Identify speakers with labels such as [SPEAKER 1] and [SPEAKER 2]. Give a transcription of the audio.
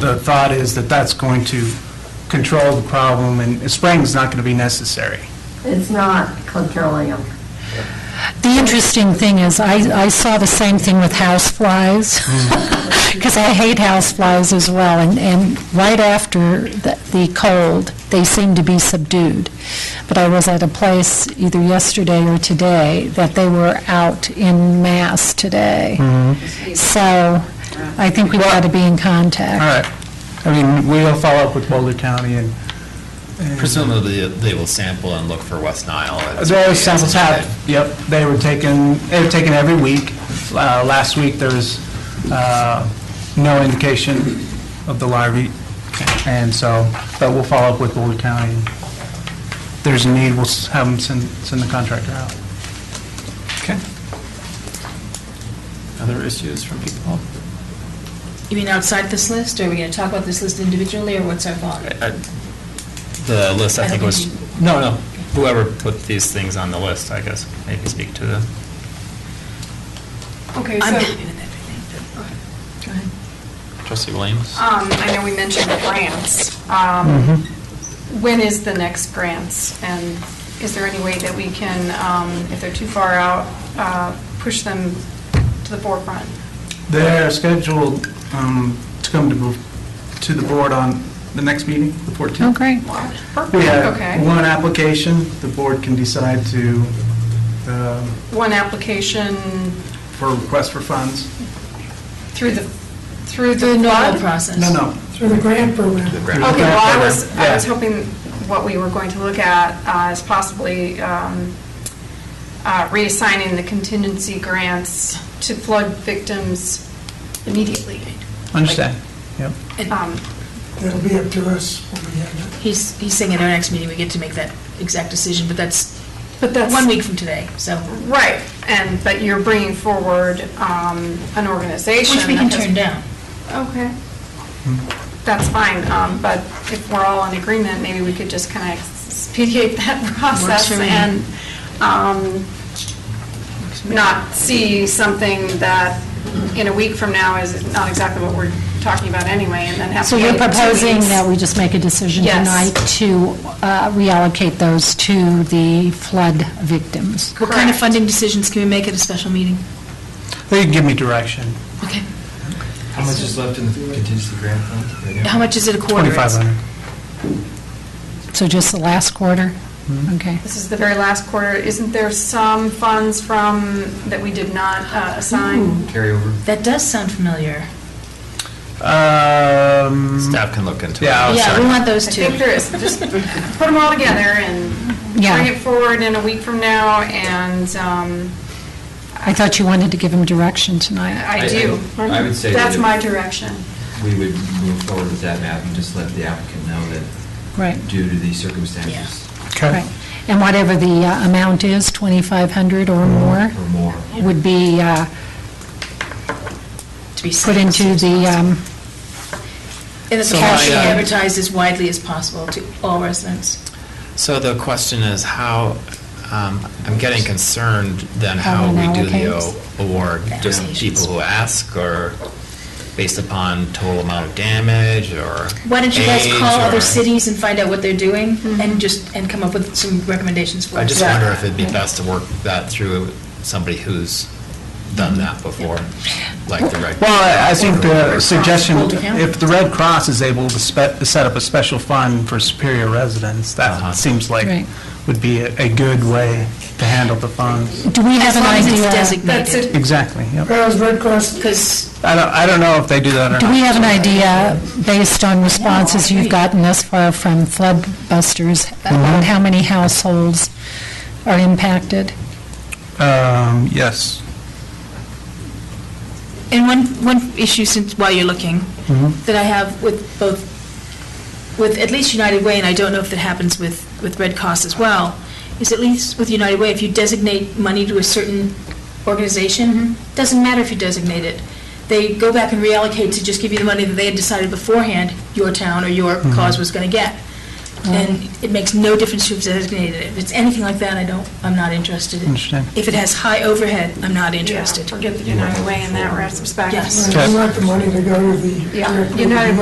[SPEAKER 1] the thought is that that's going to control the problem, and spraying's not going to be necessary.
[SPEAKER 2] It's not controlling them.
[SPEAKER 3] The interesting thing is, I, I saw the same thing with houseflies, because I hate houseflies as well, and, and right after the the cold, they seem to be subdued. But I was at a place either yesterday or today that they were out in mass today. So I think we've got to be in
[SPEAKER 1] All
[SPEAKER 3] contact.
[SPEAKER 1] right. I mean, we'll follow up with Boulder County and... and-
[SPEAKER 4] Presumably, they will sample and look for West Nile.
[SPEAKER 1] There are samples have, yep, they were taken, they were taken every week. Uh, Last week, there was uh, no indication of the larvae, and so, but we'll follow up with Boulder County. If there's a need, we'll s- have them send, send the contractor out.
[SPEAKER 4] Okay. Other issues from people?
[SPEAKER 5] You mean outside this list, or are we going to talk about this list individually, or what's our thought?
[SPEAKER 4] I- The list, I think, was, no, no, whoever put these things on the list, I guess, maybe speak to them.
[SPEAKER 6] Okay,
[SPEAKER 5] I'm
[SPEAKER 6] so,
[SPEAKER 5] happy with everything, but- go ahead.
[SPEAKER 4] Trustee Williams?
[SPEAKER 6] um, I know we mentioned grants. Um,
[SPEAKER 1] Mm-hmm.
[SPEAKER 6] When is the next grants? And is there any way that we can, um, if they're too far out, uh, push them to the forefront?
[SPEAKER 1] They're scheduled um, to come to, bo- to the board on the next meeting, the 14th.
[SPEAKER 3] Oh, great.
[SPEAKER 6] Wow,
[SPEAKER 1] We
[SPEAKER 6] perfect,
[SPEAKER 1] have
[SPEAKER 6] okay.
[SPEAKER 1] one application, the board can decide to, um,
[SPEAKER 6] One application
[SPEAKER 1] for request for funds.
[SPEAKER 6] through the, through the...
[SPEAKER 5] Through the normal
[SPEAKER 6] fund?
[SPEAKER 5] process.
[SPEAKER 1] No, no,
[SPEAKER 7] Through the grant program.
[SPEAKER 6] Okay, well, I was, I was
[SPEAKER 1] Yeah.
[SPEAKER 6] hoping what we were going to look at uh, is possibly um, uh, reassigning the contingency grants to flood victims immediately.
[SPEAKER 1] understand, yep.
[SPEAKER 6] Um,
[SPEAKER 7] That'll be up to us when we have it.
[SPEAKER 5] He's, he's saying at our next meeting, we get to make that exact decision, but that's
[SPEAKER 6] But that's,
[SPEAKER 5] one week from today, so,
[SPEAKER 6] right, and, but you're bringing forward um, an organization.
[SPEAKER 5] which we can
[SPEAKER 6] that has-
[SPEAKER 5] turn down.
[SPEAKER 6] Okay. That's fine, um, but if we're all in agreement, maybe we could just kind of expedite that process
[SPEAKER 5] for me.
[SPEAKER 6] and um, not see something that in a week from now is not exactly what we're talking about anyway, and then have to
[SPEAKER 3] So
[SPEAKER 6] wait
[SPEAKER 3] you're
[SPEAKER 6] two
[SPEAKER 3] proposing
[SPEAKER 6] weeks.
[SPEAKER 3] that we just make a decision
[SPEAKER 6] Yes.
[SPEAKER 3] tonight to uh, reallocate those to the flood victims?
[SPEAKER 5] What kind of
[SPEAKER 6] Correct.
[SPEAKER 5] funding decisions can we make at a special meeting?
[SPEAKER 1] They can give me direction,
[SPEAKER 5] Okay,
[SPEAKER 8] How much is left in the contingency grant fund? right now?
[SPEAKER 5] how much is it a quarter?
[SPEAKER 1] 2,500.
[SPEAKER 3] So just the last quarter? Okay.
[SPEAKER 6] This is the very last quarter. Isn't there some funds from, that we did not uh, assign?
[SPEAKER 8] Carryover?
[SPEAKER 5] That does sound familiar.
[SPEAKER 1] Um,
[SPEAKER 4] Staff can look into it.
[SPEAKER 3] Oh,
[SPEAKER 1] Yeah, I'll
[SPEAKER 5] Yeah, we want those
[SPEAKER 6] I
[SPEAKER 5] two.
[SPEAKER 6] think there is, just put them all together and
[SPEAKER 3] Yeah.
[SPEAKER 6] bring it forward in a week from now, and um,
[SPEAKER 3] I thought you wanted to give him direction tonight.
[SPEAKER 6] I
[SPEAKER 8] I-
[SPEAKER 6] do.
[SPEAKER 8] I would say
[SPEAKER 6] That's
[SPEAKER 8] that-
[SPEAKER 6] my direction.
[SPEAKER 8] We would move forward with that map and just let the applicant know that
[SPEAKER 3] Right.
[SPEAKER 8] due to these circumstances
[SPEAKER 1] Okay.
[SPEAKER 3] Right. And whatever the uh, amount is, 2,500 or more,
[SPEAKER 8] or more.
[SPEAKER 3] would be uh,
[SPEAKER 5] To be
[SPEAKER 3] put into the, um, uh,
[SPEAKER 5] And that the
[SPEAKER 4] So,
[SPEAKER 5] cash be
[SPEAKER 4] yeah.
[SPEAKER 5] advertised as widely as possible to all residents.
[SPEAKER 4] So the question is how, um, I'm getting concerned then how
[SPEAKER 3] How we
[SPEAKER 4] we do the
[SPEAKER 3] allocate
[SPEAKER 4] o- award. Just
[SPEAKER 5] allocations.
[SPEAKER 4] people who ask or based upon total amount of damage or
[SPEAKER 5] Why don't you guys
[SPEAKER 4] age
[SPEAKER 5] call other
[SPEAKER 4] or-
[SPEAKER 5] cities and find out what they're doing, and just, and come up with some recommendations for us?
[SPEAKER 4] I just wonder if it'd be best to work that through with somebody who's done that before, like the Red.
[SPEAKER 1] Well, I- I think the suggestion,
[SPEAKER 5] Boulder County.
[SPEAKER 1] if the Red Cross is able to spe- to set up a special fund for Superior residents,
[SPEAKER 4] Uh-huh.
[SPEAKER 1] that seems like
[SPEAKER 3] Right.
[SPEAKER 1] would be a a good way to handle the funds.
[SPEAKER 3] do we
[SPEAKER 5] As
[SPEAKER 3] have an
[SPEAKER 5] long as it's
[SPEAKER 3] idea?
[SPEAKER 6] That's
[SPEAKER 5] designated,
[SPEAKER 6] it.
[SPEAKER 1] Exactly, yep.
[SPEAKER 7] Well, is Red Cross,
[SPEAKER 5] because
[SPEAKER 1] I don't, I don't know if they do that or not.
[SPEAKER 3] Do we have an idea, based on responses you've gotten thus far from flood busters, about how many households are impacted?
[SPEAKER 1] Um, yes.
[SPEAKER 5] And one, one issue since, while you're looking, that I have with both, with at least United Way, and I don't know if that happens with, with Red Cross as well, is at least with United Way, if you designate money to a certain organization, doesn't matter if you designate it, they go back and reallocate to just give you the money that they had decided beforehand your town or your cause was going to get. And it makes no difference who's designated it. If it's anything like that, I don't, I'm not interested. in.
[SPEAKER 1] Understand.
[SPEAKER 5] If it has high overhead, I'm not
[SPEAKER 6] Yeah,
[SPEAKER 5] interested.
[SPEAKER 6] Forget the United Way in that respect.
[SPEAKER 5] Yes.
[SPEAKER 7] we uh, want the money to go to the.
[SPEAKER 6] Yeah,
[SPEAKER 7] grant
[SPEAKER 6] United
[SPEAKER 7] program.